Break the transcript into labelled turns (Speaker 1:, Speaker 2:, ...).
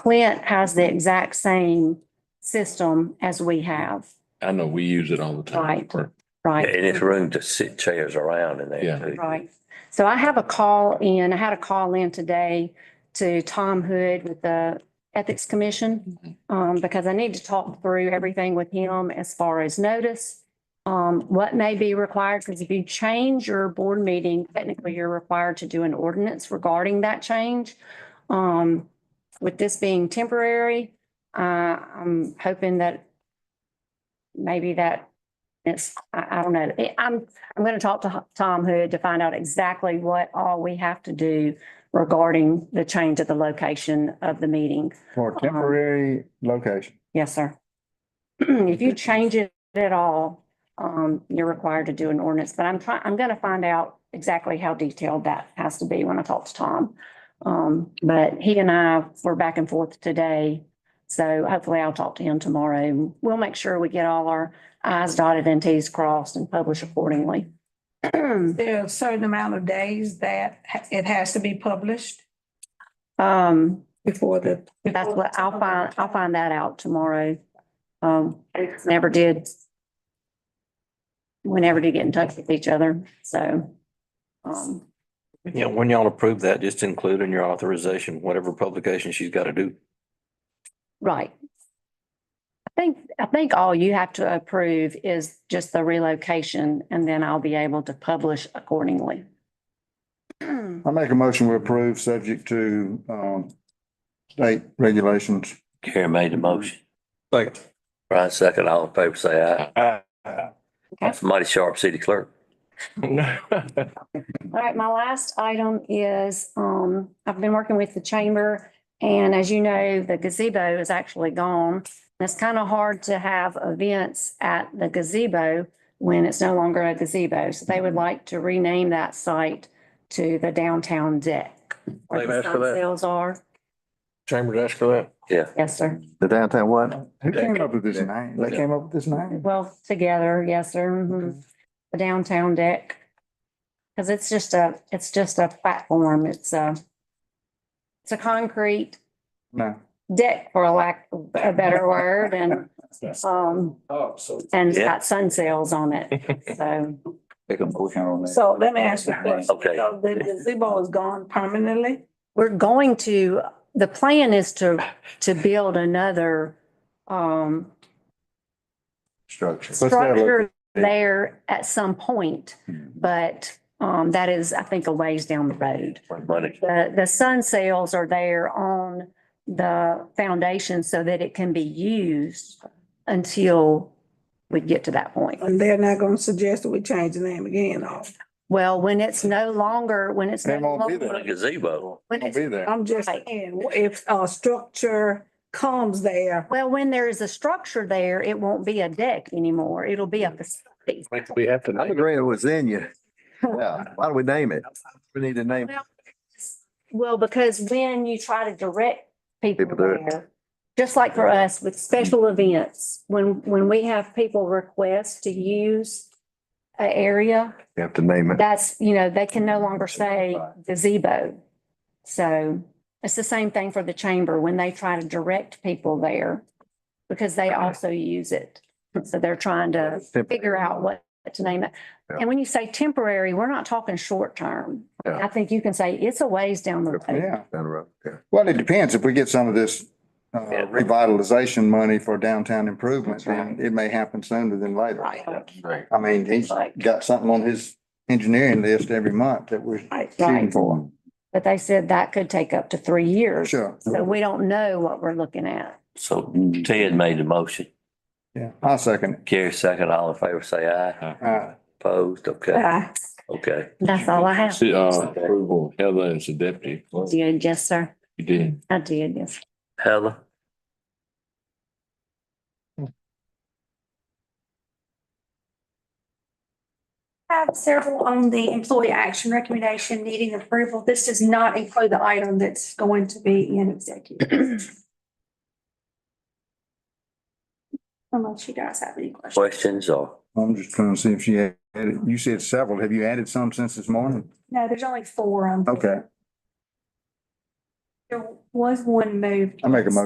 Speaker 1: Clint has the exact same system as we have,
Speaker 2: I know we use it all the time.
Speaker 1: Right.
Speaker 2: For-
Speaker 3: Yeah,
Speaker 1: right?
Speaker 3: And it's room to sit chairs around in
Speaker 2: Yeah.
Speaker 3: there. too.
Speaker 1: Right. So I have a call in, I had a call in today to Tom Hood with the Ethics Commission. Um, because I need to talk through everything with him as far as notice. Um, what may be required, because if you change your board meeting, technically you're required to do an ordinance regarding that change. Um, with this being temporary, uh, I'm hoping that maybe that it's, I, I don't know. Eh, I'm, I'm going to talk to Tom Hood to find out exactly what all we have to do regarding the change of the location of the meeting.
Speaker 4: For a temporary location.
Speaker 1: Yes, sir. If you change it at all, um, you're required to do an ordinance, but I'm trying, I'm gonna find out exactly how detailed that has to be when I talk to Tom. Um, but he and I were back and forth today, so hopefully I'll talk to him tomorrow. We'll make sure we get all our i's dotted and t's crossed and publish accordingly.
Speaker 5: There are a certain amount of days that ha- it has to be published
Speaker 1: Um,
Speaker 5: before the.
Speaker 1: That's what, I'll find, I'll find that out tomorrow. Um, never did. We never did get in touch with each other, so. Um,
Speaker 3: Yeah, when y'all approve that, just include in your authorization, whatever publication she's got to do.
Speaker 1: right. I think, I think all you have to approve is just the relocation and then I'll be able to publish accordingly.
Speaker 4: I make a motion we approve, subject to um state regulations.
Speaker 3: Karen made the motion.
Speaker 4: Second.
Speaker 3: Brian second, all in favor, say aye. That's mighty sharp city clerk.
Speaker 1: All right, my last item is, um, I've been working with the chamber and as you know, the gazebo is actually gone. And It's kind of hard to have events at the gazebo when it's no longer a gazebo. So they would like to rename that site to the downtown deck. where
Speaker 6: They've
Speaker 1: the
Speaker 6: asked for that.
Speaker 1: sun Sales are.
Speaker 6: Chamber asked for that.
Speaker 3: Yeah.
Speaker 1: Yes, sir.
Speaker 7: The downtown what?
Speaker 4: Who came up with this name? They came up with this name?
Speaker 1: Well, together, yes, sir. mhm. The downtown deck. Cause it's just a, it's just a platform. It's a, it's a concrete
Speaker 4: No.
Speaker 1: deck, for lack of a better word, and, um,
Speaker 6: Oh, so.
Speaker 1: and it's
Speaker 3: Yeah.
Speaker 1: got sun sails on it, so.
Speaker 7: Make a motion on that.
Speaker 5: So let me ask you a question.
Speaker 3: Okay.
Speaker 5: So The gazebo is gone permanently?
Speaker 1: We're going to, the plan is to, to build another, um,
Speaker 7: Structure.
Speaker 4: Let's have a look.
Speaker 1: structure there at some point,
Speaker 7: Hmm.
Speaker 1: but, um, that is, I think, a ways down the road.
Speaker 3: Money.
Speaker 1: The, the sun sails are there on the foundation so that it can be used until we get to that point.
Speaker 5: And they're not gonna suggest that we change the name again, or,
Speaker 1: Well, when it's no longer, when it's.
Speaker 4: They
Speaker 1: no
Speaker 4: won't be
Speaker 1: longer-
Speaker 3: A gazebo.
Speaker 1: when
Speaker 4: Won't
Speaker 1: it's-
Speaker 4: be there.
Speaker 5: I'm just
Speaker 1: Right.
Speaker 5: saying, if a structure comes there,
Speaker 1: Well, when there is a structure there, it won't be a deck anymore. It'll be a
Speaker 4: Mm.
Speaker 1: facility.
Speaker 6: We have to.
Speaker 7: I'm agreeing with Zenia. Yeah, why do we name it? We need to name. it.
Speaker 1: Well, because when you try to direct people
Speaker 7: People do it.
Speaker 1: there, just like for us with special events, when, when we have people request to use an area,
Speaker 7: We have to name it.
Speaker 1: that's, you know, they can no longer say gazebo. So it's the same thing for the chamber when they try to direct people there because they also use it. So they're trying to figure out what to name it.
Speaker 7: Yeah.
Speaker 1: And when you say temporary, we're not talking short term.
Speaker 7: Yeah.
Speaker 1: I think you can say it's a ways down the road.
Speaker 4: Yeah.
Speaker 7: Down the road, yeah.
Speaker 4: Well, it depends. If we get some of this uh,
Speaker 3: Yeah.
Speaker 4: revitalization money for downtown improvements,
Speaker 1: That's right.
Speaker 4: then it may happen sooner than later.
Speaker 5: right,
Speaker 7: Right.
Speaker 4: I mean, he's
Speaker 1: Right.
Speaker 4: got something on his engineering list every month that we're
Speaker 5: right.
Speaker 4: shooting
Speaker 1: Right.
Speaker 4: for.
Speaker 1: But they said that could take up to three years.
Speaker 4: Sure.
Speaker 1: So we don't know what we're looking at.
Speaker 3: So Ted made the motion.
Speaker 4: Yeah, I'll second
Speaker 3: Carrie second, all in favor, say aye.
Speaker 4: it. Uh,
Speaker 3: Opposed, okay,
Speaker 5: Uh,
Speaker 3: okay.
Speaker 1: That's all I have.
Speaker 2: See, uh, approval, Heather is the deputy. You
Speaker 1: Did, yes, sir.
Speaker 2: did.
Speaker 1: I did, yes.
Speaker 3: Heather?
Speaker 8: have several on the employee action recommendation needing approval. This does not include the item that's going to be in executive. Unless you guys have any questions.
Speaker 3: Questions or?
Speaker 4: I'm just trying to see if she had, you said several. Have you added some since this morning?
Speaker 8: No, there's only four on.
Speaker 4: Okay.
Speaker 9: There was one moved.
Speaker 8: I make a motion